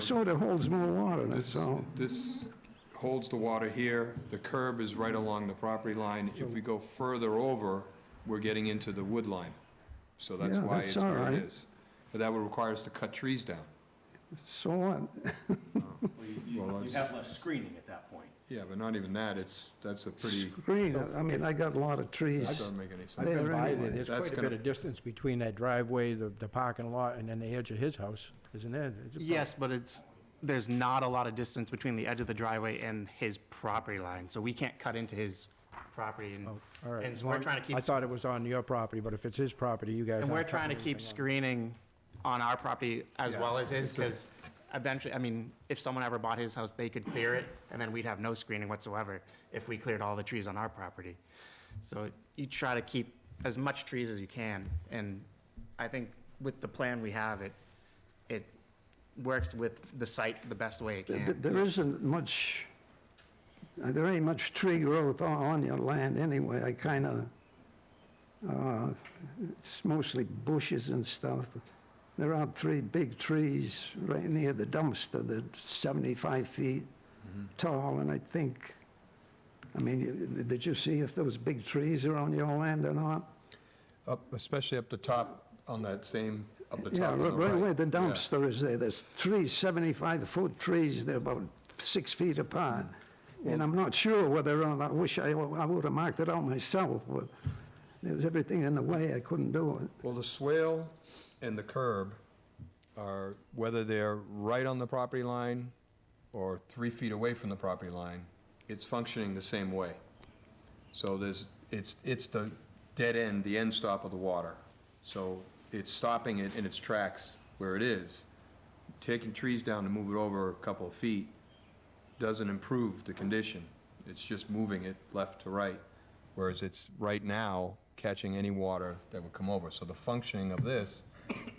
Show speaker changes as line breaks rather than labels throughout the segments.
soda holds more water, that's
This,
all.
this holds the water here, the curb is right along the property line. If we go further over, we're getting into the wood line. So that's
Yeah,
why
that's
it's where
all
it
right.
is. But that would require us to cut trees down.
So what?
Well, you- you-
Well,
You
that's-
have less screening at that point.
Yeah, but not even that, it's, that's a pretty,
Green, I mean, I got a lot of trees.
that doesn't make any sense.
I've been
There
by
anyway.
there, there's
That's
quite a
gonna-
bit of distance between that driveway, the, the parking lot, and then the edge of his house, isn't there? It's about-
Yes, but it's, there's not a lot of distance between the edge of the driveway and his property line, so we can't cut into his property and,
Oh, All right.
and
as
we're
long-
trying to keep,
I thought it was on your property, but if it's his property, you guys
and
aren't.
we're trying to
cutting
keep screening on our property as
Yeah,
well as his,
it's a-
because eventually, I mean, if someone ever bought his house, they could clear it, and then we'd have no screening whatsoever if we cleared all the trees on our property. So you try to keep as much trees as you can, and I think with the plan we have, it, it works with the site the best way it
Th-
can.
th- There isn't much, uh, there ain't much tree growth on, on your land anyway. I kind of, uh, it's mostly bushes and stuff. There are three big trees right near the dumpster that 75 feet tall, and I think, I mean, you- did you see if those big trees are on your land or not?
Up, especially up the top, on that same, up the top.
Yeah,
on the
right right where the
Yeah.
dumpster is there, there's trees, 75-foot trees, they're about six feet apart. And I'm not sure whether, or not- I wish I, I would have marked it out myself, but there was everything in the way, I couldn't do it.
Well, the swale and the curb are, whether they're right on the property line or three feet away from the property line, it's functioning the same way. So there's, it's, it's the dead end, the end stop of the water. So it's stopping it in its tracks where it is. Taking trees down to move it over a couple of feet doesn't improve the condition. It's just moving it left to right, whereas it's right now catching any water that would come over. So the functioning of this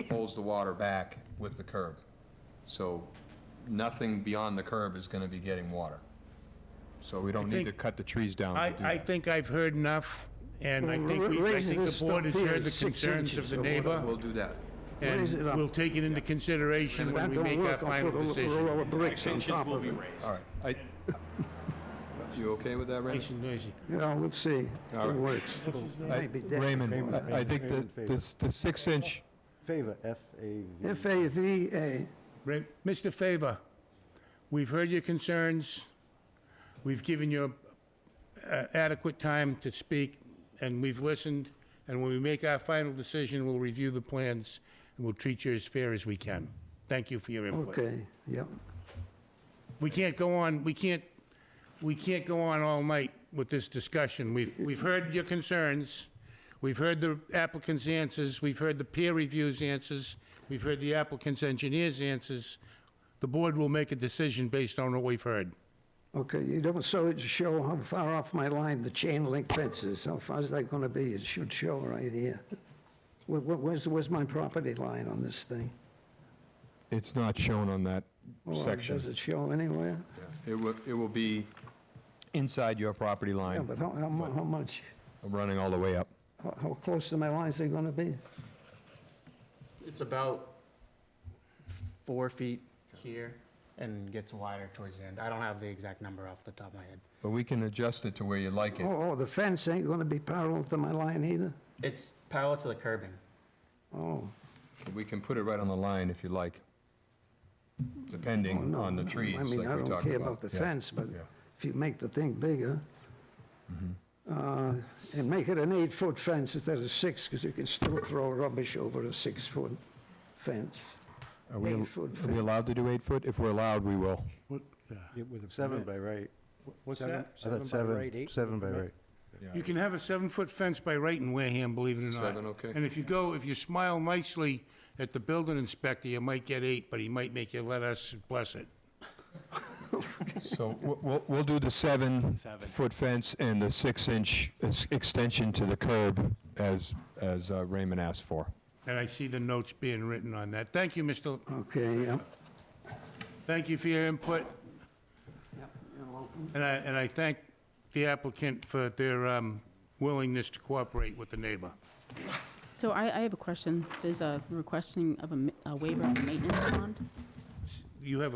holds the water back with the curb. So nothing beyond the curb is going to be getting water. So we don't need to
think-
cut the trees down to
I,
do
I
that.
think I've heard enough, and I
Well,
think, we- I
raise
think
this
the board
up
has
here
heard the
six
concerns of
inches
the
or
neighbor,
We'll do that.
and
Raise it up.
we'll take it into
And
consideration
if
when
that
we make
don't
our
work, I'll
final
put a little
decision.
roll of bricks on
Six
top
inches will
of
be
it.
raised.
All right. I- You okay with that, Randy?
Nice and noisy.
Yeah, we'll see if
All
it
right.
works. Might be dead.
Raymond,
Favor,
I- I think
Raymond,
the,
favor.
this- the six-inch,
Favor, F-A-V.
F-A-V-A,
Re- Mr. Faber, we've heard your concerns, we've given you uh, adequate time to speak, and we've listened, and when we make our final decision, we'll review the plans, and we'll treat you as fair as we can. Thank you for your input.
okay, yep.
We can't go on, we can't, we can't go on all night with this discussion. We've, we've heard your concerns, we've heard the applicant's answers, we've heard the peer review's answers, we've heard the applicant's engineer's answers. The board will make a decision based on what we've heard.
Okay, you don't, so it show how far off my line the chain link fence is, how far is that gonna be? It should show right here. Where- where- Where's, where's my property line on this thing?
it's not shown on that
Oh, Well, Does
section.
it show anywhere?
It will, it will be inside your property
Yeah,
line,
but how, how mu- how much,
running all the way up.
how how close to my lines are gonna be?
It's about four feet here and gets wider towards the end. I don't have the exact number off the top of my head.
But we can adjust it to where you like it.
Oh, oh, the fence ain't gonna be parallel to my line either?
It's parallel to the curbing.
Oh,
We can put it right on the line if you like,
oh,
depending
no.
on the
no,
trees, like we talked
I
about.
mean, I don't care about the
Yeah.
fence, but
yeah.
if you make the thing bigger,
Mm-hmm.
uh, and make it an eight-foot fence instead of six, because you can still throw rubbish over a six-foot fence.
Are we, al-
Eight-foot
are we allowed to do eight foot? If we're allowed, we will.
Yeah, with a
Seven
permit.
by right.
What's
Seven-
that?
I thought
by right,
seven,
eight?
seven by
Permit.
right.
You can have a seven-foot fence by right in Wareham, believe it or not.
Seven, okay.
And if you go, if you smile nicely at the building inspector, you might get eight, but he might make you let us bless it.
So we'll- we'll, we'll do the seven foot fence and the six inch ex- extension to the curb as, as uh, Raymond asked for.
And I see the notes being written on that. Thank you, Mr.,
Okay, yeah.
thank you for your input. And I, and I thank the applicant for their um, willingness to cooperate with the neighbor.
So I, I have a question. There's a requesting of a ma- a waiver of a maintenance bond.
You have a